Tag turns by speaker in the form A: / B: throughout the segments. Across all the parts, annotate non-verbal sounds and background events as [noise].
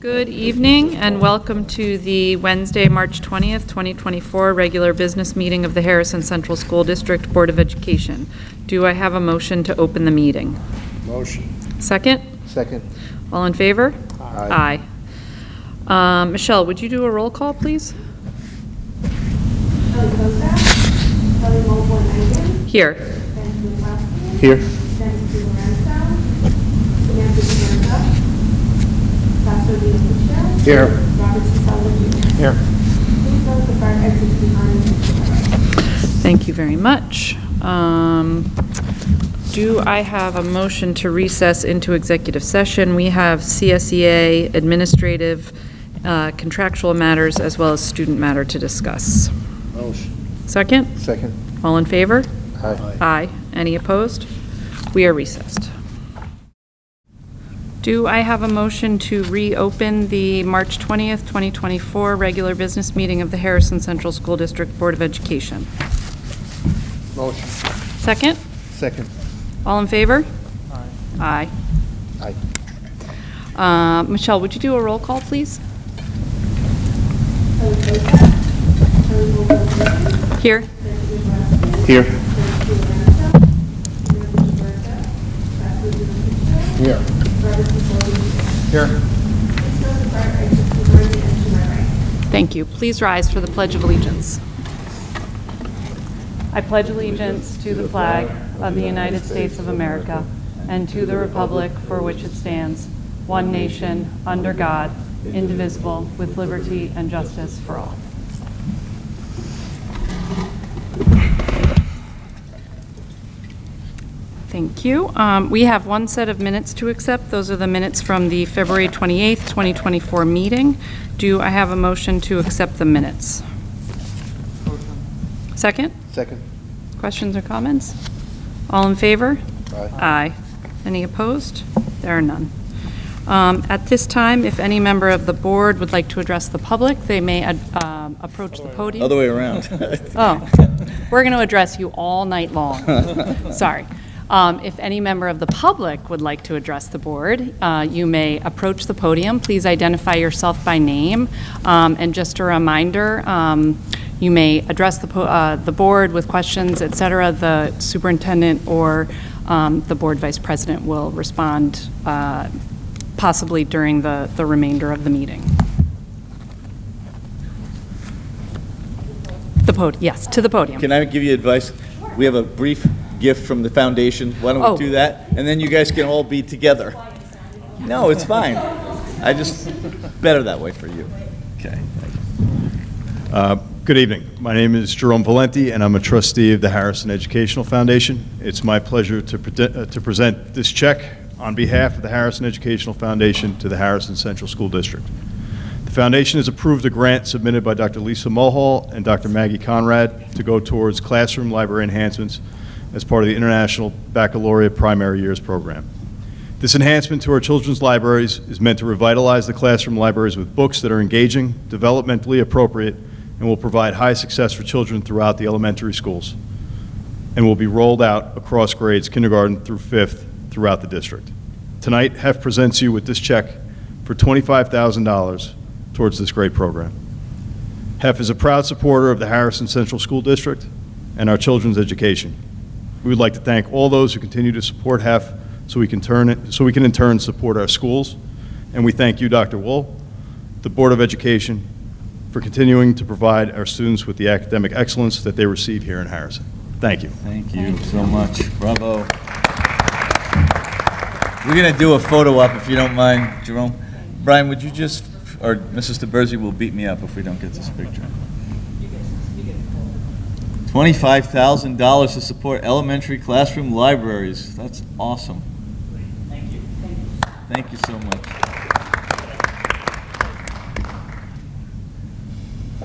A: Good evening and welcome to the Wednesday, March 20th, 2024 regular business meeting of the Harrison Central School District Board of Education. Do I have a motion to open the meeting?
B: Motion.
A: Second?
B: Second.
A: All in favor?
B: Aye.
A: Aye. Um, Michelle, would you do a roll call, please?
C: Kelly Kosak, Kelly Mobley Rankin,
A: Here.
C: Ben Kulakowski,
B: Here.
C: Nancy Lorenzo, Samantha Lorenzo, Sasha Diaz Fisher,
B: Here.
C: Robert Sisella Jr.
B: Here.
C: Please note the fire exit behind the
A: Thank you very much. Um, Do I have a motion to recess into executive session? We have CSEA administrative uh, contractual matters as well as student matter to discuss.
B: Motion.
A: Second?
B: Second.
A: All in favor?
B: Aye.
A: Aye. Any opposed? We are recessed. Do I have a motion to reopen the March 20th, 2024 regular business meeting of the Harrison Central School District Board of Education?
B: Motion.
A: Second?
B: Second.
A: All in favor? Aye.
B: Aye.
A: Uh, Michelle, would you do a roll call, please?
C: Kelly Kosak, Kelly Mobley Rankin,
A: Here.
C: Nancy Lorenzo,
B: Here.
C: Nancy Lorenzo, Samantha Lorenzo, Sasha Diaz Fisher,
B: Here.
C: Robert Sisella Jr.
B: Here.
C: Please note the fire exit behind the entrance to my right.
A: Thank you. Please rise for the Pledge of Allegiance. I pledge allegiance to the flag of the United States of America and to the republic for which it stands, one nation, under God, indivisible, with liberty and justice for all. Thank you. Um, We have one set of minutes to accept. Those are the minutes from the February 28th, 2024 meeting. Do I have a motion to accept the minutes? Second?
B: Second.
A: Questions or comments? All in favor?
B: Aye.
A: Any opposed? There are none. Um, At this time, if any member of the board would like to address the public, they may um, approach the podium.
D: Other way around.
A: [laughs] Oh, we're going to address you all night
D: [laughs]
A: long. [laughs] Sorry. Um, If any member of the public would like to address the board, uh, you may approach the podium. Please identify yourself by name. Um, And just a reminder, um, you may address the po- uh, the board with questions, et cetera. The superintendent or um, the board vice president will respond uh, possibly during the the remainder of the meeting. The pod, yes, to the podium.
D: Can I give you advice? We have a brief gift from the foundation. Why
A: Oh.
D: don't we do that? And then you guys can all be together. No, it's fine. I just, better that way for you. Okay.
E: Uh, Good evening. My name is Jerome Valenti, and I'm a trustee of the Harrison Educational Foundation. It's my pleasure to prete- uh, to present this check on behalf of the Harrison Educational Foundation to the Harrison Central School District. The foundation has approved a grant submitted by Dr. Lisa Mulhall and Dr. Maggie Conrad to go towards classroom library enhancements as part of the International Baccalaureate Primary Years Program. This enhancement to our children's libraries is meant to revitalize the classroom libraries with books that are engaging, developmentally appropriate, and will provide high success for children throughout the elementary schools, and will be rolled out across grades kindergarten through fifth throughout the district. Tonight, HEF presents you with this check for $25,000 towards this great program. HEF is a proud supporter of the Harrison Central School District and our children's education. We would like to thank all those who continue to support HEF so we can turn it, so we can in turn support our schools. And we thank you, Dr. Wool, the Board of Education, for continuing to provide our students with the academic excellence that they receive here in Harrison. Thank you.
D: Thank you so much. Bravo. We're going to do a photo op if you don't mind, Jerome. Brian, would you just, or Mrs. DeBersey will beat me up if we don't get this picture. $25,000 to support elementary classroom libraries. That's awesome. Thank you. Thank you so much.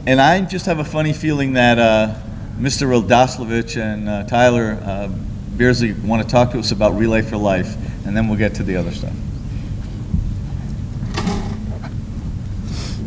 D: And I just have a funny feeling that uh, Mr. Rodoslovich and uh, Tyler uh, Beersley want to talk to us about Relay for Life, and then we'll get to the other stuff.